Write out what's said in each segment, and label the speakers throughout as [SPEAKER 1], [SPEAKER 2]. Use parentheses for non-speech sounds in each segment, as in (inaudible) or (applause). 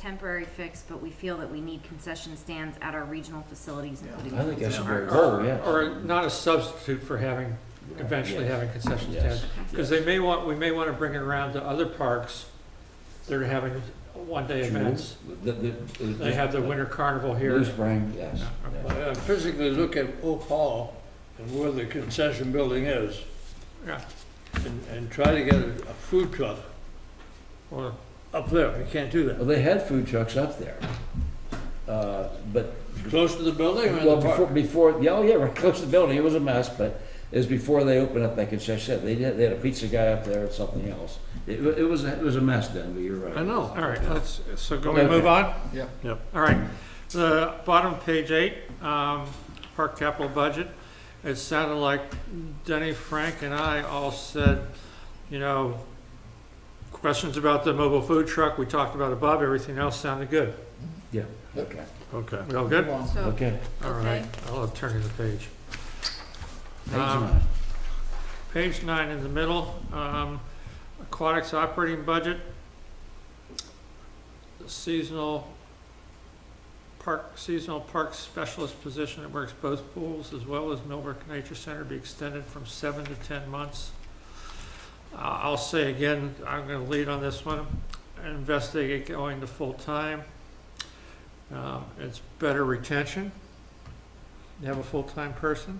[SPEAKER 1] temporary fix, but we feel that we need concession stands at our regional facilities, including.
[SPEAKER 2] I think that should be a goal,
[SPEAKER 3] Or,
[SPEAKER 2] yeah.
[SPEAKER 3] or not a substitute for having, eventually having concession
[SPEAKER 2] Yes.
[SPEAKER 3] stands. Because they may want, we may want to bring it around to other parks that are having one-day events.
[SPEAKER 2] The- the-
[SPEAKER 3] They have the winter carnival here.
[SPEAKER 2] Blue Spring, yes.
[SPEAKER 3] Yeah.
[SPEAKER 4] I I Uh, physically look at Oak Hall and where the concession building is
[SPEAKER 3] Yeah,
[SPEAKER 4] and, and try to get a a food truck
[SPEAKER 3] or,
[SPEAKER 4] up there. You can't do
[SPEAKER 2] Well,
[SPEAKER 4] that.
[SPEAKER 2] they had food trucks up there. Uh, But,
[SPEAKER 4] Close to the building or in
[SPEAKER 2] well,
[SPEAKER 4] the
[SPEAKER 2] before,
[SPEAKER 4] park?
[SPEAKER 2] before, yeah, oh, yeah, right close to the building, it was a mess, but it was before they opened up that concession. stand. They did, they had a pizza guy up there and something else. It, wa- it was, it was a mess then, but you're right.
[SPEAKER 4] I know.
[SPEAKER 3] all right, let's, so can we move
[SPEAKER 2] Okay.
[SPEAKER 3] on?
[SPEAKER 5] Yep.
[SPEAKER 4] Yep.
[SPEAKER 3] All right, the bottom of page eight, um, park capital budget. It sounded like Denny, Frank, and I all said, you know, questions about the mobile food truck, we talked about above, everything else sounded good.
[SPEAKER 2] Yeah, okay,
[SPEAKER 4] Okay.
[SPEAKER 3] We all good?
[SPEAKER 1] So,
[SPEAKER 2] okay.
[SPEAKER 3] All right, I'll turn to the page.
[SPEAKER 4] Uh,
[SPEAKER 2] Page
[SPEAKER 3] Um,
[SPEAKER 2] nine.
[SPEAKER 3] Page nine in the middle, um, aquatics operating budget. Seasonal park, seasonal park specialist position that works both pools as well as Millbrook Nature Center be extended from seven to ten months. Uh, I'll say again, I'm gonna lead on this one, investigate going to full-time. Um, it's better retention. You have a full-time person,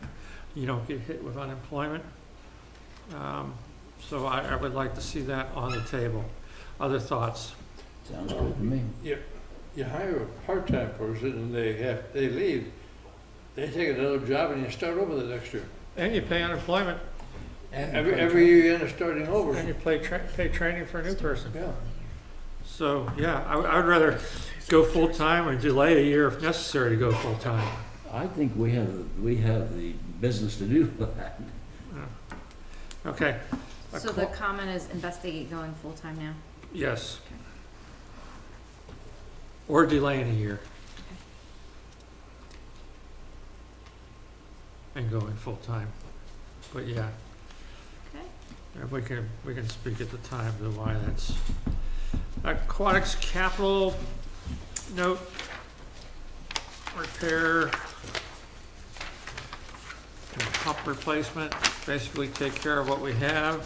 [SPEAKER 3] you don't get hit with unemployment. Um, So I, I would like to see that on the table. Other thoughts?
[SPEAKER 2] Sounds good to me.
[SPEAKER 4] You hire a part-time person and they have, they leave, they take another job and you start over the next year.
[SPEAKER 3] And you pay unemployment,
[SPEAKER 4] Every, every year you end up starting over.
[SPEAKER 3] and you play, tra- pay training for a new person.
[SPEAKER 4] Yeah.
[SPEAKER 3] So, yeah, I, would- I would rather go full-time or delay a year if necessary to go full-time.
[SPEAKER 2] I think we have, we have the business to do (laughs) that.
[SPEAKER 3] Okay,
[SPEAKER 1] so the comment is investigate going full-time now.
[SPEAKER 3] yes. Or delaying a year. And going full-time. But yeah,
[SPEAKER 1] Okay.
[SPEAKER 3] Yeah, we can, we can speak at the time to why that's. Aquatics capital note, repair, and pump replacement, basically take care of what we have.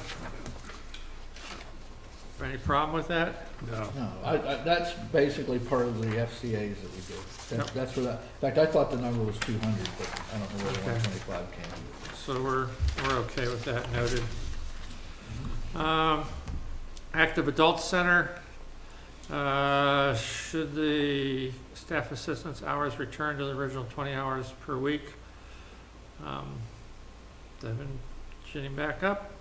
[SPEAKER 3] Any problem with that?
[SPEAKER 4] No.
[SPEAKER 5] No, I, I, that's basically part of the FCA's that we do. That's, that's where that, in fact, I thought the number was two hundred, but I don't know where the
[SPEAKER 3] Okay.
[SPEAKER 5] one twenty-five came from.
[SPEAKER 3] So we're, we're okay with that noted. Um, Active Adult Center, uh, should the staff assistance hours return to the original twenty hours per week? Um, They've been shooting back up.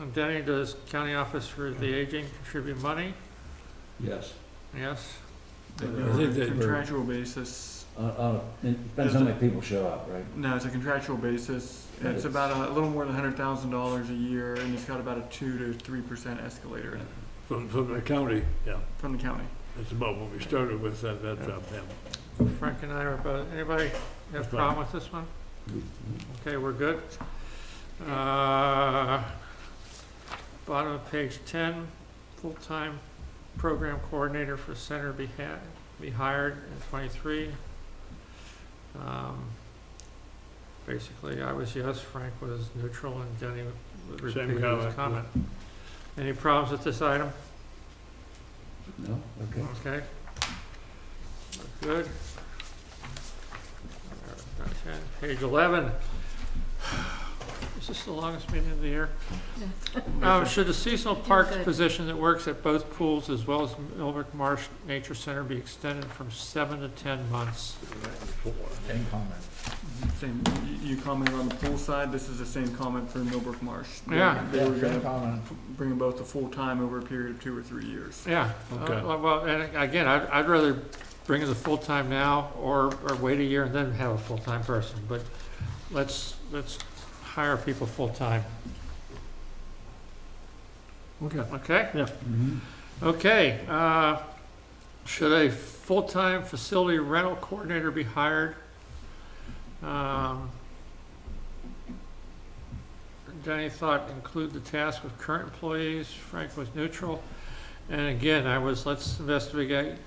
[SPEAKER 3] And Denny, does county office for the aging contribute money?
[SPEAKER 2] Yes.
[SPEAKER 3] Yes?
[SPEAKER 4] I think they-
[SPEAKER 6] Contractual basis,
[SPEAKER 2] Uh, uh, it depends how many people show up, right?
[SPEAKER 6] no, it's a contractual basis.
[SPEAKER 2] Right.
[SPEAKER 6] It's about a, a little more than hundred thousand dollars a year, and it's got about a two to three percent escalator in it
[SPEAKER 4] From, from the county, yeah.
[SPEAKER 6] from the county.
[SPEAKER 4] That's about what we started with at that uh, time, yeah.
[SPEAKER 3] Frank and I are both, anybody have a
[SPEAKER 4] That's
[SPEAKER 3] problem with this one? Okay, we're good. Uh, Bottom of page ten, full-time program coordinator for center be ha- be hired in twenty-three. Um, Basically, I was yes, Frank was neutral, and Denny repeated his
[SPEAKER 4] comment,
[SPEAKER 3] comment. Any problems with this item?
[SPEAKER 2] No? Okay.
[SPEAKER 3] Okay. Good. Okay, Page eleven. Is this the longest meeting of the year? Um, should the seasonal parks
[SPEAKER 1] good.
[SPEAKER 3] position that works at both pools as well as Millbrook Marsh Nature Center be extended from seven to ten months?
[SPEAKER 5] Same comment.
[SPEAKER 6] Same, you, you commented on the pool side, this is the same comment for Millbrook Marsh. They-
[SPEAKER 3] Yeah.
[SPEAKER 6] They were
[SPEAKER 5] Yeah, same
[SPEAKER 6] gonna
[SPEAKER 5] comment.
[SPEAKER 6] bring them both to full-time over a period of two or three years.
[SPEAKER 3] Yeah,
[SPEAKER 4] Okay.
[SPEAKER 3] Uh, well, and again, I'd, I'd rather bring in the full-time now or, or wait a year and then have a full-time person, but let's, let's hire people full-time.
[SPEAKER 4] Okay.
[SPEAKER 3] Okay? Mm-hmm.
[SPEAKER 2] Mhm.
[SPEAKER 3] Okay, uh, should a full-time facility rental coordinator be hired? Um, Danny thought include the task of current employees, Frank was neutral. And again, I was, let's investigate